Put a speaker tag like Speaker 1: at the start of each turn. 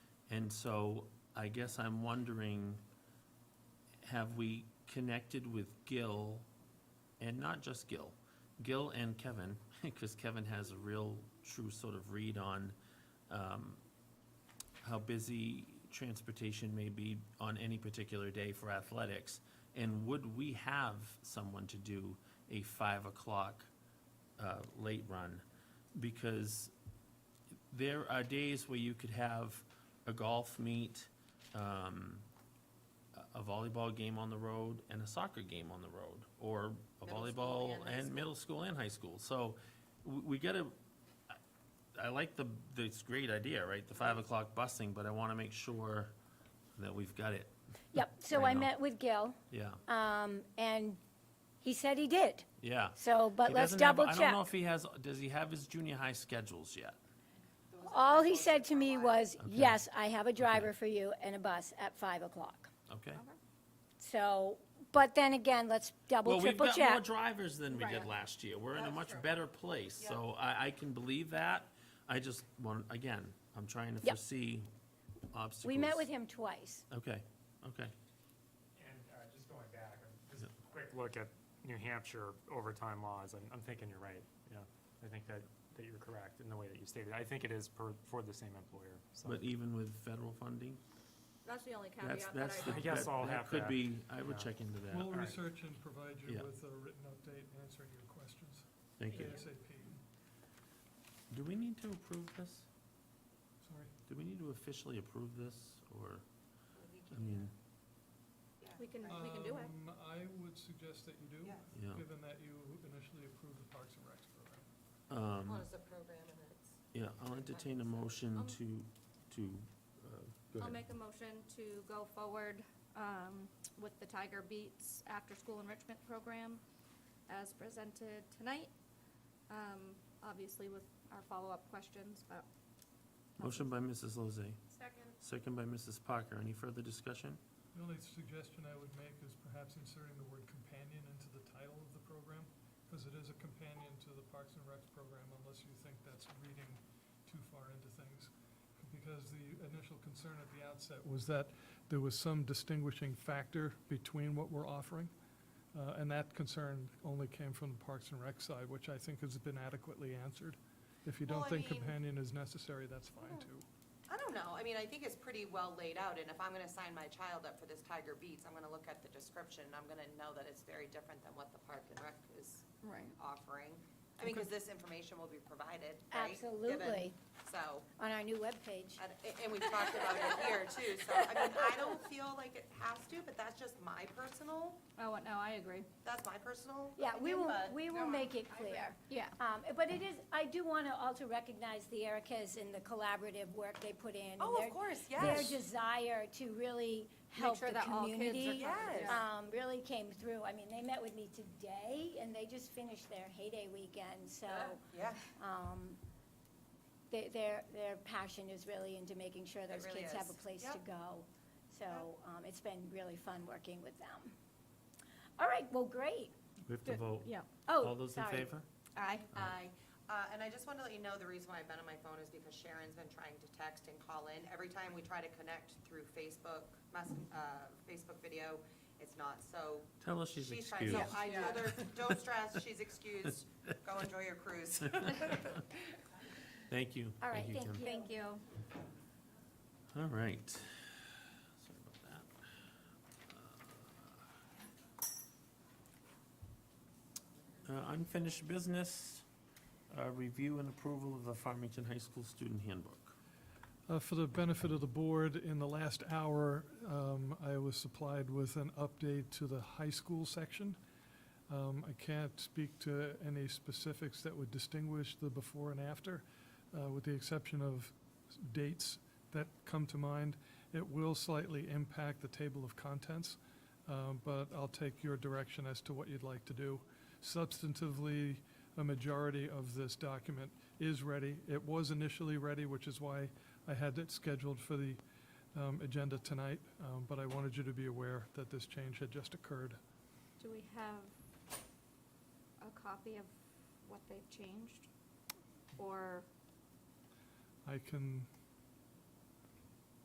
Speaker 1: And so I guess I'm wondering, have we connected with Gil, and not just Gil, Gil and Kevin, because Kevin has a real true sort of read on um, how busy transportation may be on any particular day for athletics? And would we have someone to do a five o'clock uh, late run? Because there are days where you could have a golf meet, um, a- a volleyball game on the road, and a soccer game on the road, or a
Speaker 2: Middle school
Speaker 1: volleyball
Speaker 2: and high
Speaker 1: and
Speaker 2: school.
Speaker 1: middle school and high school. So we, we gotta, I- I like the, this great idea, right, the five o'clock busing, but I wanna make sure that we've got it,
Speaker 3: Yep, so
Speaker 1: I
Speaker 3: I
Speaker 1: know.
Speaker 3: met with Gil,
Speaker 1: yeah,
Speaker 3: um, and he said he did,
Speaker 1: yeah.
Speaker 3: so, but
Speaker 1: He
Speaker 3: let's
Speaker 1: doesn't have-
Speaker 3: double
Speaker 1: I don't
Speaker 3: check.
Speaker 1: know if he has, does he have his junior high schedules yet?
Speaker 3: All he said to me was,
Speaker 1: Okay.
Speaker 3: yes, I have a driver for you and a bus at five o'clock.
Speaker 1: Okay.
Speaker 3: So, but then again, let's double,
Speaker 1: Well, we've
Speaker 3: triple
Speaker 1: got more
Speaker 3: check.
Speaker 1: drivers than we did
Speaker 2: Right.
Speaker 1: last year. We're in a
Speaker 2: That's
Speaker 1: much
Speaker 2: true.
Speaker 1: better place, so I, I can believe that. I just want, again, I'm trying to
Speaker 3: Yep.
Speaker 1: foresee obstacles.
Speaker 3: We met with him twice.
Speaker 1: Okay, okay,
Speaker 4: And uh, just going back, um, just a quick look at New Hampshire overtime laws, I'm, I'm thinking you're right, yeah. I think that, that you're correct in the way that you stated. I think it is per, for the same employer, so.
Speaker 1: but even with federal funding,
Speaker 2: That's the only
Speaker 1: that's,
Speaker 2: caveat that
Speaker 1: that's the.
Speaker 2: I,
Speaker 4: I guess
Speaker 1: that-
Speaker 4: I'll
Speaker 1: that
Speaker 4: have
Speaker 1: Could
Speaker 4: that,
Speaker 1: be, I would
Speaker 4: yeah.
Speaker 1: check into that.
Speaker 5: We'll
Speaker 4: All right.
Speaker 5: research and provide you
Speaker 1: Yeah.
Speaker 5: with a written update and answering your questions
Speaker 1: Thank you.
Speaker 5: ASAP.
Speaker 1: Do we need to approve this?
Speaker 5: Sorry.
Speaker 1: Do we need to officially approve this, or, I mean,
Speaker 2: we can, we can do it.
Speaker 5: Um, I would suggest that you
Speaker 6: Um,
Speaker 5: do,
Speaker 1: yeah,
Speaker 5: given that you initially approved the Parks and Recs program.
Speaker 1: um,
Speaker 2: Well, it's a program and it's.
Speaker 1: yeah, I'll entertain a motion
Speaker 2: Um,
Speaker 1: to, to, uh, go
Speaker 2: I'll
Speaker 1: ahead.
Speaker 2: make a motion to go forward um, with the Tiger Beats after-school enrichment program as presented tonight. Um, Obviously with our follow-up questions, but.
Speaker 1: Motion by Mrs. Lozay,
Speaker 2: Second.
Speaker 1: second by Mrs. Parker. Any further discussion?
Speaker 5: The only suggestion I would make is perhaps inserting the word companion into the title of the program, because it is a companion to the Parks and Recs program, unless you think that's reading too far into things. Because the initial concern at the outset was that there was some distinguishing factor between what we're offering, uh, and that concern only came from the Parks and Rec side, which I think has been adequately answered. If you
Speaker 6: Well,
Speaker 5: don't
Speaker 6: I
Speaker 5: think
Speaker 6: mean-
Speaker 5: companion is necessary, that's fine too.
Speaker 6: I don't know, I mean, I think it's pretty well laid out, and if I'm gonna sign my child up for this Tiger Beats, I'm gonna look at the description, and I'm gonna know that it's very different than what the Park and Rec is
Speaker 2: Right.
Speaker 6: offering. I mean, because this information will be provided, right? given-
Speaker 3: Absolutely,
Speaker 6: So,
Speaker 3: on our new webpage.
Speaker 6: and, and we've talked about it here too, so, I mean, I don't feel like it has to, but that's just my personal,
Speaker 2: Oh, no, I agree.
Speaker 6: that's my personal
Speaker 3: Yeah, we
Speaker 6: opinion,
Speaker 3: will,
Speaker 6: but-
Speaker 3: we will make it clear.
Speaker 2: Yeah.
Speaker 3: Um, but it is, I do want to also recognize the Ericas and the collaborative work they put in. and
Speaker 6: Oh,
Speaker 3: their-
Speaker 6: of course,
Speaker 3: Their
Speaker 6: yes.
Speaker 3: desire to really
Speaker 2: Make
Speaker 3: help the
Speaker 2: sure that all kids are
Speaker 3: community,
Speaker 2: covered.
Speaker 6: Yes.
Speaker 2: yeah.
Speaker 3: um, really came through. I mean, they met with me today, and they just finished their heyday weekend, so,
Speaker 6: Yeah,
Speaker 3: um, they- their, their passion is really into making sure those
Speaker 6: really
Speaker 3: kids have a
Speaker 6: is.
Speaker 3: place
Speaker 6: Yep.
Speaker 3: to go. So, um, it's been really fun working with them. All right, well, great.
Speaker 1: We have to
Speaker 2: Good.
Speaker 1: vote.
Speaker 2: Yeah.
Speaker 3: Oh,
Speaker 1: All those in
Speaker 3: sorry.
Speaker 1: favor?
Speaker 2: Aye.
Speaker 6: Aye. Uh, and I just want to let you know, the reason why I've been on my phone is because Sharon's been trying to text and call in. Every time we try to connect through Facebook, mess, uh, Facebook video, it's not, so.
Speaker 1: Tell us she's
Speaker 6: trying-
Speaker 1: excused.
Speaker 6: So I told her, don't stress, she's excused, go enjoy your cruise.
Speaker 1: Thank you.
Speaker 3: All right, thank
Speaker 1: Kim.
Speaker 3: you.
Speaker 2: Thank you.
Speaker 1: All right. Sorry about that. Uh, Unfinished business, uh, review and approval of the Farmington High School Student Handbook.
Speaker 5: Uh, For the benefit of the board, in the last hour, um, I was supplied with an update to the high school section. Um, I can't speak to any specifics that would distinguish the before and after, uh, with the exception of s- dates that come to mind. It will slightly impact the table of contents, um, but I'll take your direction as to what you'd like to do. Substantively, a majority of this document is ready. It was initially ready, which is why I had it scheduled for the um, agenda tonight, um, but I wanted you to be aware that this change had just occurred.
Speaker 2: Do we have a copy of what they've changed? Or,
Speaker 5: I can